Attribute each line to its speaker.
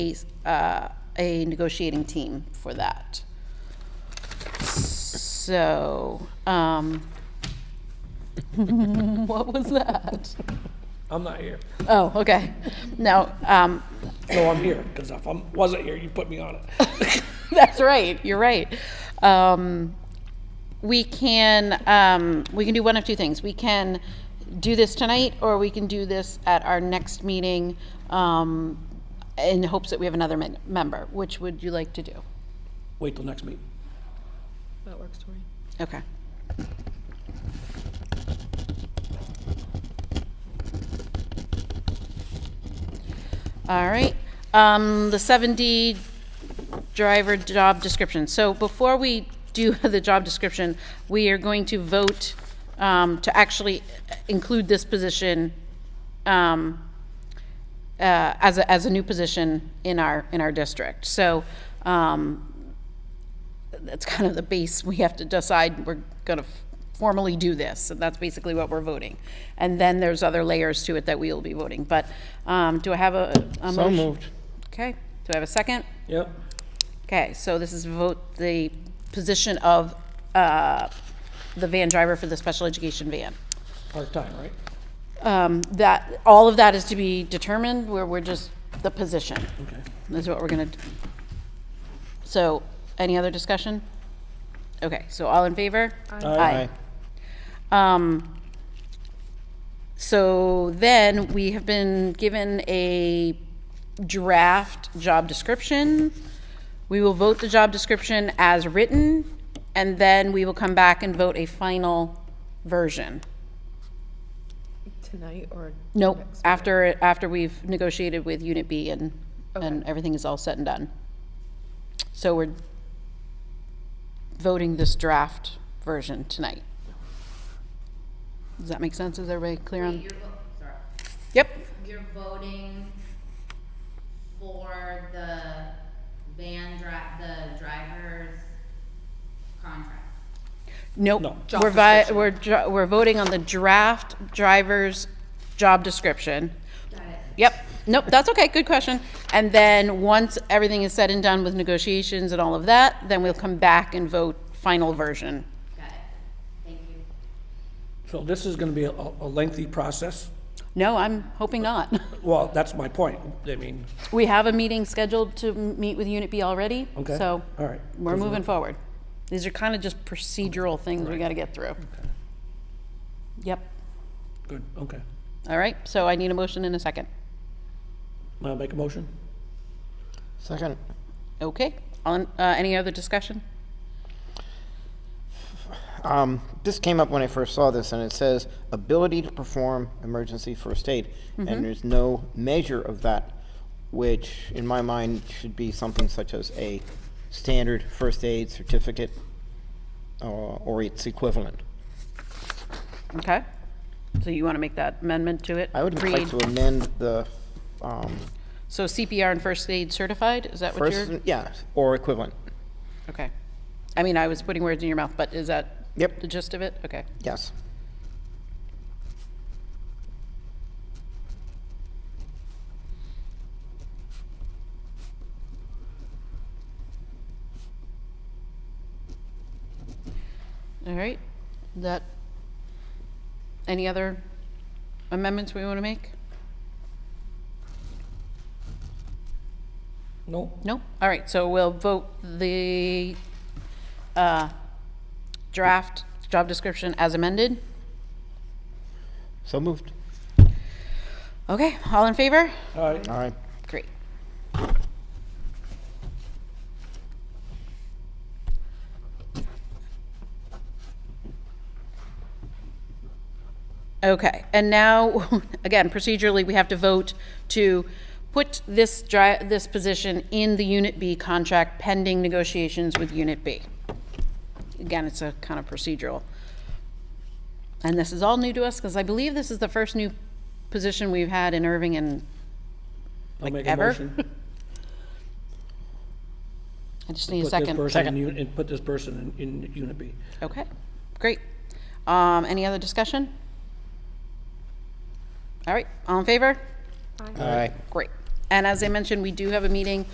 Speaker 1: a, uh, a negotiating team for that. So, um, what was that?
Speaker 2: I'm not here.
Speaker 1: Oh, okay. No, um,
Speaker 2: No, I'm here, because if I wasn't here, you put me on it.
Speaker 1: That's right. You're right. Um, we can um, we can do one of two things. We can do this tonight, or we can do this at our next meeting um, in hopes that we have another men- member. Which would you like to do?
Speaker 2: Wait till next meeting.
Speaker 3: That works for me.
Speaker 1: Okay. All right, um, the seven D driver job description. So before we do the job description, we are going to vote, um, to actually include this position, um, uh, as a, as a new position in our, in our district. So, um, that's kind of the base, we have to decide we're gonna formally do this, and that's basically what we're voting. And then there's other layers to it that we will be voting, but, um, do I have a, a motion?
Speaker 4: So moved.
Speaker 1: Okay, do I have a second?
Speaker 2: Yep.
Speaker 1: Okay, so this is vote the position of, uh, the van driver for the special education van.
Speaker 2: Part-time, right?
Speaker 1: Um, that, all of that is to be determined, where we're just, the position.
Speaker 2: Okay.
Speaker 1: That's what we're gonna, do. so, any other discussion? Okay, so all in favor?
Speaker 2: Aye.
Speaker 1: Um, so then we have been given a draft job description. We will vote the job description as written, and then we will come back and vote a final version.
Speaker 3: Tonight or?
Speaker 1: Nope,
Speaker 3: next week?
Speaker 1: after, after we've negotiated with Unit B and, and
Speaker 3: Okay.
Speaker 1: everything is all said and done. So we're voting this draft version tonight. Does that make sense? Is everybody clear on?
Speaker 5: You're, vo- sorry,
Speaker 1: Yep,
Speaker 5: you're voting for the van dri- the driver's contract.
Speaker 1: nope.
Speaker 2: No.
Speaker 1: We're vi, we're, dr- we're voting on the draft driver's job description.
Speaker 5: Got it?
Speaker 1: Yep, nope, that's okay, good question. And then, once everything is said and done with negotiations and all of that, then we'll come back and vote final version.
Speaker 5: Got it. Thank you.
Speaker 2: So this is gonna be a, a lengthy process.
Speaker 1: No, I'm hoping not.
Speaker 2: Well, that's my point. I mean,
Speaker 1: We have a meeting scheduled to m- meet with Unit B already.
Speaker 2: Okay,
Speaker 1: So
Speaker 2: all right.
Speaker 1: we're moving forward. These are kind of just procedural things we got to get through. Yep.
Speaker 2: good, okay.
Speaker 1: All right. So I need a motion in a second.
Speaker 2: Now make a motion?
Speaker 4: Second.
Speaker 1: Okay. On, uh, any other discussion?
Speaker 4: Um, this came up when I first saw this, and it says ability to perform emergency first aid,
Speaker 1: Mm-hmm.
Speaker 4: and there's no measure of that, which in my mind should be something such as a standard first aid certificate uh, or its equivalent.
Speaker 1: Okay. So you want to make that amendment to it?
Speaker 4: I would
Speaker 1: Read.
Speaker 4: like to amend the um,
Speaker 1: So CPR and first aid certified? Is that what
Speaker 4: first,
Speaker 1: you're?
Speaker 4: yeah, or equivalent.
Speaker 1: Okay. I mean, I was putting words in your mouth, but is that
Speaker 4: Yep.
Speaker 1: the gist of it? Okay.
Speaker 4: Yes.
Speaker 1: All right, that, any other amendments we want to make?
Speaker 2: No?
Speaker 1: No? All right, so we'll vote the uh, draft job description as amended.
Speaker 4: So moved.
Speaker 1: Okay, all in favor?
Speaker 2: All right,
Speaker 4: All right.
Speaker 1: Great. Okay, and now, again, procedurally, we have to vote to put this dri, this position in the Unit B contract pending negotiations with Unit B. Again, it's a kind of procedural. And this is all new to us, because I believe this is the first new position we've had in Irving in
Speaker 2: I'll make a
Speaker 1: ever?
Speaker 2: motion.
Speaker 1: I just need a
Speaker 2: Put this
Speaker 1: second.
Speaker 2: person in, uni- and put this person in, in Unit B.
Speaker 1: Okay, great. Um, any other discussion? All right, all in favor?
Speaker 4: All right.
Speaker 1: Great. And as I mentioned, we do have a meeting